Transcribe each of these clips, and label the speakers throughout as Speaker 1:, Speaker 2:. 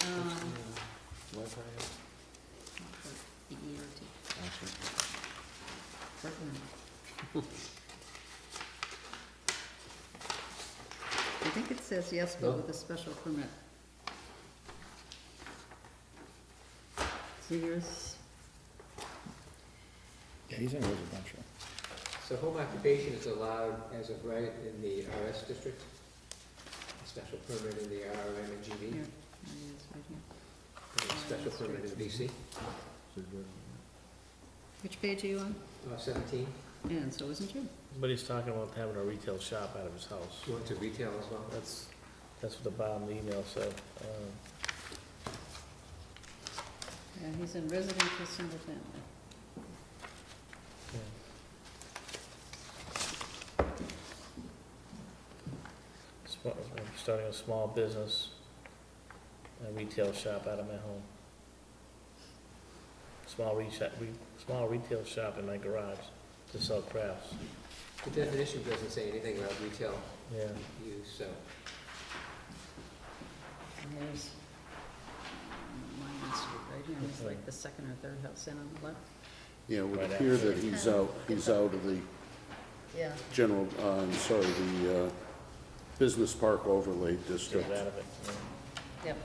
Speaker 1: Um,
Speaker 2: I think it says yes,
Speaker 1: No.
Speaker 2: but with a special permit. So yours,
Speaker 3: Yeah, he's in residential.
Speaker 1: So home occupation is allowed as of right in the RS district? Special permit in the RM and
Speaker 2: here,
Speaker 1: GB?
Speaker 2: there it is, right here.
Speaker 1: and a Special permit in BC?
Speaker 2: Which page are you on?
Speaker 1: Uh, Seventeen,
Speaker 2: And so isn't you?
Speaker 4: But he's talking about having a retail shop out of his house.
Speaker 1: you want to retail as well?
Speaker 4: That's, that's what the bottom of the email said. Um,
Speaker 2: Yeah, he's in residential single family.
Speaker 4: yeah. Sm- I'm starting a small business, a retail shop out of my home. Small retail, small retail shop in my garage to sell crafts,
Speaker 1: The definition doesn't say anything about retail
Speaker 4: yeah.
Speaker 1: use, so
Speaker 2: And there's um, Lion Street, right here, it's like the second or third house in on the left.
Speaker 5: Yeah, it would
Speaker 4: Right
Speaker 5: appear
Speaker 4: after.
Speaker 5: that he's out, he's out of the
Speaker 2: Yeah.
Speaker 5: general, uh, I'm sorry, the uh, business park overlay
Speaker 4: Get
Speaker 5: district.
Speaker 4: out of it, yeah.
Speaker 2: Yep,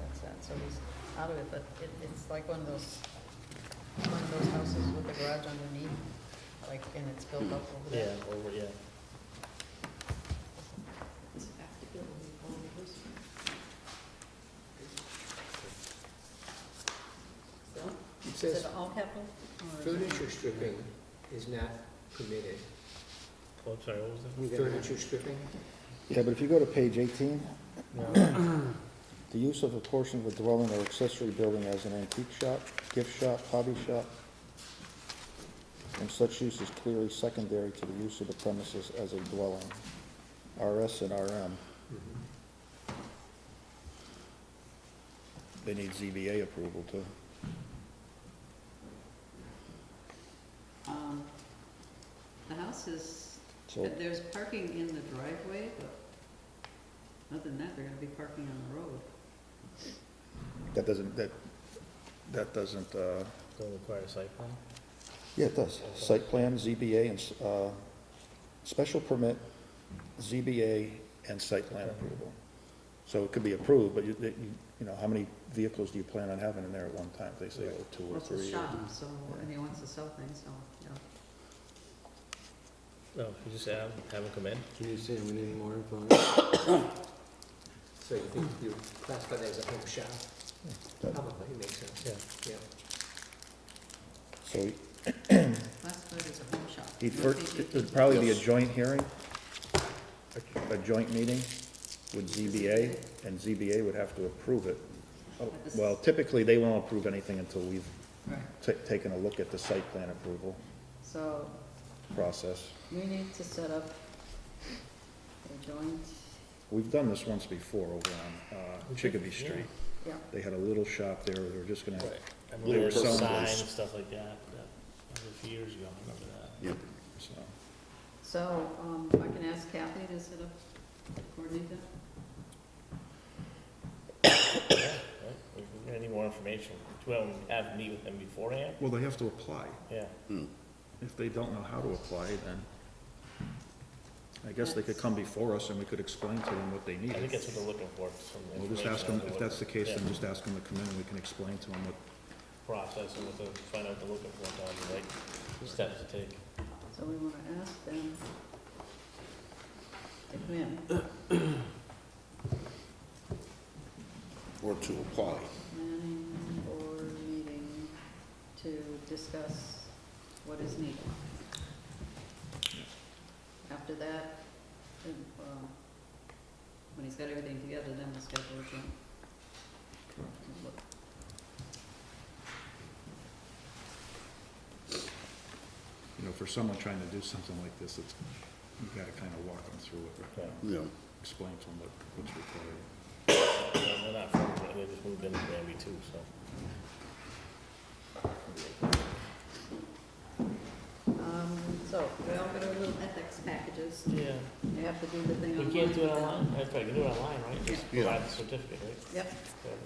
Speaker 2: that's that, so he's out of it, but it, it's like one of those, one of those houses with the garage underneath, like, and it's built up over there.
Speaker 4: Yeah, over, yeah.
Speaker 1: it
Speaker 2: Is
Speaker 1: says
Speaker 2: it all capital? or is it-
Speaker 1: furniture stripping is not permitted.
Speaker 4: Oh, I'm sorry, what was that?
Speaker 1: Furniture stripping?
Speaker 3: Yeah, but if you go to page eighteen,
Speaker 4: No.
Speaker 3: the use of a portion of a dwelling or accessory building as an antique shop, gift shop, hobby shop, and such use is clearly secondary to the use of the premises as a dwelling, RS and RM.
Speaker 1: Mm-hmm.
Speaker 3: They need ZBA approval too.
Speaker 2: Um, The house is,
Speaker 3: So,
Speaker 2: there's parking in the driveway, but other than that, they're gonna be parking on the road.
Speaker 3: that doesn't, that, that doesn't, uh,
Speaker 4: Don't require a site plan?
Speaker 3: Yeah, it does. Site plan, ZBA, and, uh, special permit, ZBA, and site plan approval. So it could be approved, but you, that you, you know, how many vehicles do you plan on having in there at one time? They say, oh, two
Speaker 2: Well,
Speaker 3: or
Speaker 2: it's a
Speaker 3: three. or-
Speaker 2: shop, so, and he wants to sell things, so, yeah.
Speaker 4: No, you just have, have them come in.
Speaker 1: Can you say we need more info on it? So you think you classify that as a home shop? Probably makes sense,
Speaker 4: Yeah.
Speaker 1: yeah.
Speaker 3: So
Speaker 2: Last word is a home shop.
Speaker 3: he'd
Speaker 2: No
Speaker 3: first,
Speaker 2: biggie.
Speaker 3: it'd probably be a joint hearing, a- a joint meeting with ZBA, and ZBA would have to approve it. Oh, Well, typically, they won't approve anything until we've
Speaker 2: Right,
Speaker 3: ta- taken a look at the site plan approval
Speaker 2: so
Speaker 3: process.
Speaker 2: we need to set up a joint,
Speaker 3: We've done this once before over on uh, Chicopee Street.
Speaker 2: yeah,
Speaker 3: They had a little shop there, they were just gonna,
Speaker 4: I remember there was
Speaker 3: Little
Speaker 4: a sign and
Speaker 3: signs.
Speaker 4: stuff like that, that, that was a few years ago, I remember that.
Speaker 5: Yep.
Speaker 3: so,
Speaker 2: so, um, I can ask Kathy to set up, coordinate that?
Speaker 4: Right? If we Any more information, do we have to meet with them beforehand?
Speaker 3: well, they have to apply.
Speaker 4: Yeah,
Speaker 3: If they don't know how to apply, then I guess they could come before us and we could explain to them what they
Speaker 4: I think
Speaker 3: need.
Speaker 4: that's what they're looking for, some
Speaker 3: We'll just
Speaker 4: information
Speaker 3: ask them,
Speaker 4: on
Speaker 3: if
Speaker 4: what-
Speaker 3: that's the case,
Speaker 4: yeah,
Speaker 3: then just ask them to come in and we can explain to them what,
Speaker 4: Process and what they, find out what they're looking for, down the right steps to take.
Speaker 2: So we wanna ask them to come in,
Speaker 5: Or to apply.
Speaker 2: planning board meeting to discuss what is needed. After that, then, um, when he's got everything together, then we'll schedule a joint.
Speaker 3: you know, for someone trying to do something like this, it's, you gotta kinda walk them through it, you know,
Speaker 5: Yeah,
Speaker 3: explain to them what, what's required.
Speaker 4: And They're not from, Granby, they just moved into Granby too, so.
Speaker 2: Um, so, we all got our little ethics packages,
Speaker 4: Yeah,
Speaker 2: you have to do the thing
Speaker 4: we
Speaker 2: online.
Speaker 4: can't do it online, that's right, you can do it online, right? Just
Speaker 5: Yeah.
Speaker 4: provide the certificate, right?
Speaker 2: Yep,
Speaker 4: Yeah,